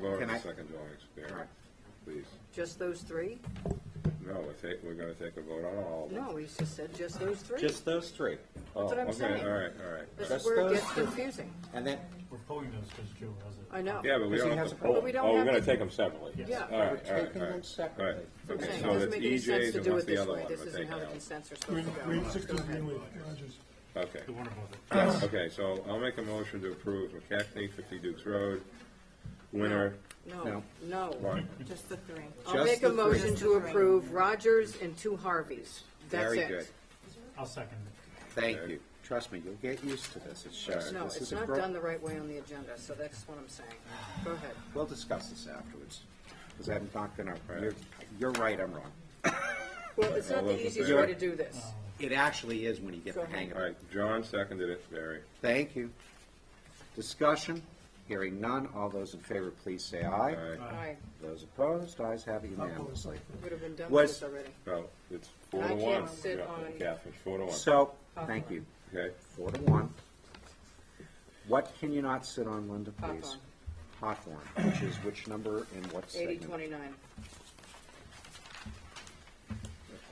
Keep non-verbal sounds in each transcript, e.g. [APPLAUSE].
Vote on Can the I- second dwelling All right. experience, please. Just those three? No, we're take, we're gonna take a vote on all of them. No, he just said just those three. Just those three. Oh, what I'm saying. Okay, all right, all right. This just is where it those gets three. confusing. And then, We're pulling those because Joe has it. I know. Yeah, but we Does he don't have have to to- vote. But we don't Oh, we're have gonna to- take them separately. All Yeah. right, We're all right, taking all right. them separately. All right. I'm Okay, saying, so E it doesn't that's make any sense EJ's to and do what's it the this other way. one? This We're isn't taking how the out. consents are supposed to Green, go. sixteen, Greenway, Rogers. Okay, The one above it. okay, so I'll make a motion to approve McCaffrey, fifty Dukes Road, winner, No, No. no. one. Just the three. I'll Just make a the three. motion Just to the three. approve Rogers and two Harveys. That's Very good. it. I'll second it. Thank Okay. you. Trust me, you'll get used to this. It's just, No, this it's is a not bro- done the right way on the agenda, so that's what I'm saying. [SIGHS] Go ahead. We'll discuss this afterwards, because I'm not gonna, Right. you're, you're right, I'm wrong. Well, it's All not those the in easiest favor? way to do this. It actually is when you get the hang of All it. right, John seconded it, Barry. Thank you. Discussion, hearing none. All those in favor, please say aye. All right, I Those opposed, ayes have it unanimously. would have been done with Was- this already. well, Oh, it's four to I one. can't sit Yeah, on- Catherine, four to one, So, thank you. okay? Four to one. What can you not sit on, Linda, Hawthorne. please? Hawthorne, which is which number and what Eighty segment? twenty-nine.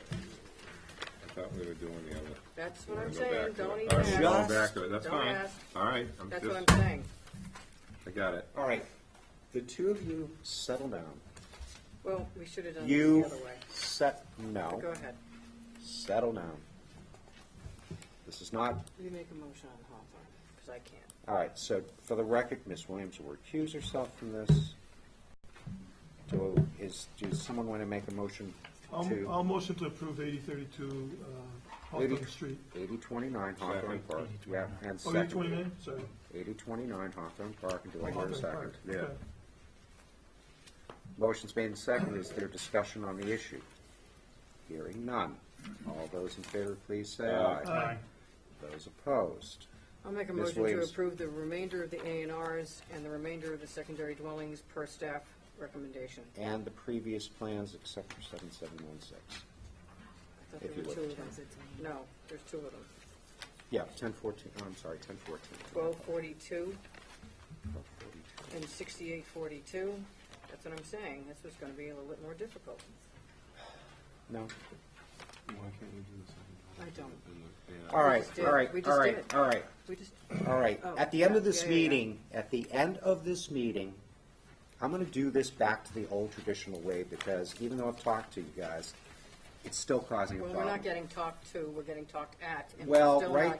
I thought we were doing the other. That's We're what I'm gonna go saying. back to Don't it. even All right, we're going ask. back to it. That's Don't fine. ask. All right, I'm That's what just, I'm saying. I got it. All right, the two of you settle down. Well, we should have done this the You other way. set, no, Go ahead. settle down. This is not, You make a motion on Hawthorne, because I can't. all right, so for the record, Ms. Williams will recuse herself from this. Do, is, does someone want to make a motion I'll, to I'll motion to approve eighty thirty-two, uh, Eighty- Hawthorne Street. eighty twenty-nine Hawthorne Second. Park? Yeah, and Oh, eighty second, twenty-nine, sorry. eighty twenty-nine Hawthorne Park, and do I hear a Hawthorne second? Park. Yeah. Okay. Motion's made and seconded. Is there discussion on the issue? Hearing none. All those in favor, please say aye. Aye. Those opposed? I'll make a Ms. motion to Williams. approve the remainder of the A and Rs and the remainder of the secondary dwellings per staff recommendation. I And the previous plans except for 7716. thought If there you were would. two of them. No, there's two of them. Yeah, 1014, oh, I'm sorry, 1014. Twelve forty-two 1242. and sixty-eight forty-two. That's what I'm saying. This was gonna be a little bit more difficult. No? I don't. All right, just did- all right, we just all did right, it. all right, We just, all right. Oh, At the end of yeah, this yeah, yeah, yeah. meeting, at the end of this meeting, I'm going to do this back to the old traditional way because even though I've talked to you guys, it's still causing a well, problem. we're not getting talked to, we're getting talked at. and we're Well, still right, not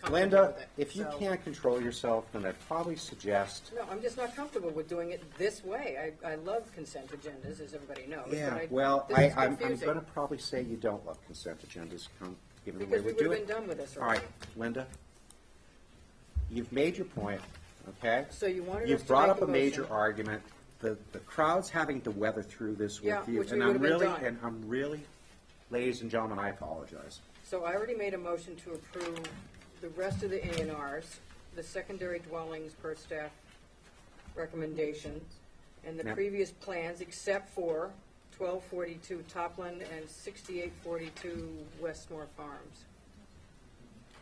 comfortable Linda, with it. if you So- can't control yourself, then I'd probably suggest, No, I'm just not comfortable with doing it this way. I, I love consent agendas, as everybody knows. but yeah, I- well, this I, is I'm, I'm confusing, gonna probably say you don't love consent agendas, come, given the way Because we we would do have been it. done with this All right, already. Linda, you've made your point, okay? So you wanted us You've to brought make up a a major motion. argument, the, the crowd's having to weather through this Yeah, with you. which we and I'm would've been really- done. And I'm really, ladies and gentlemen, I apologize. So I already made a motion to approve the rest of the A and Rs, the secondary dwellings per staff recommendation, and the Yep. previous plans, except for twelve forty-two Topland and sixty-eight forty-two Westmore Farms.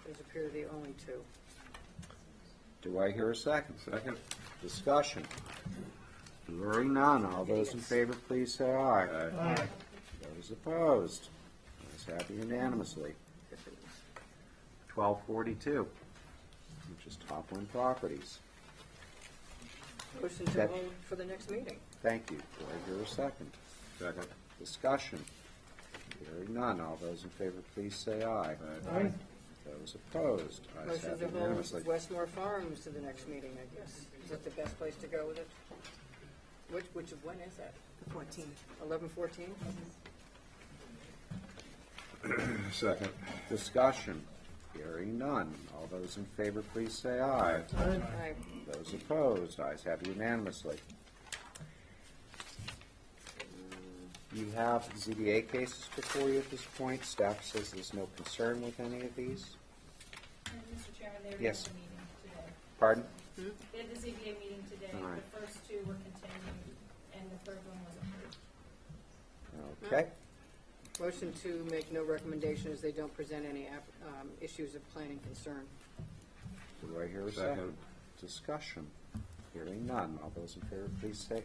Those appear to be the only two. Do I hear a second? Second? Discussion. Hearing none, all those in favor, please say aye. Aye. Those opposed, ayes have it unanimously. Twelve forty-two, which is Topland Properties. Motion to That- hold for the next meeting. Thank you. Do I hear a second? Second. Discussion. Hearing none, all those in favor, please say aye. Aye. Those opposed, ayes Motion have to it unanimously. hold Westmore Farms to the next meeting, I guess. Is that the best place to go with it? Which, which, of when is that? The fourteen. Eleven fourteen? Second. Discussion. Hearing none, all those in favor, please say aye. Aye. Those opposed, ayes have it unanimously. You have ZBA cases before you at this point. Staff says there's no concern with any of these. Mr. Chairman, there Yes. is a meeting today. Pardon? They had the ZBA meeting today. All right. The first two were continued, and the third one was approved. Okay. Motion to make no recommendation as they don't present any app- um, issues of planning concern. Do I hear a Second. second? Discussion. Hearing none, all those in favor, please say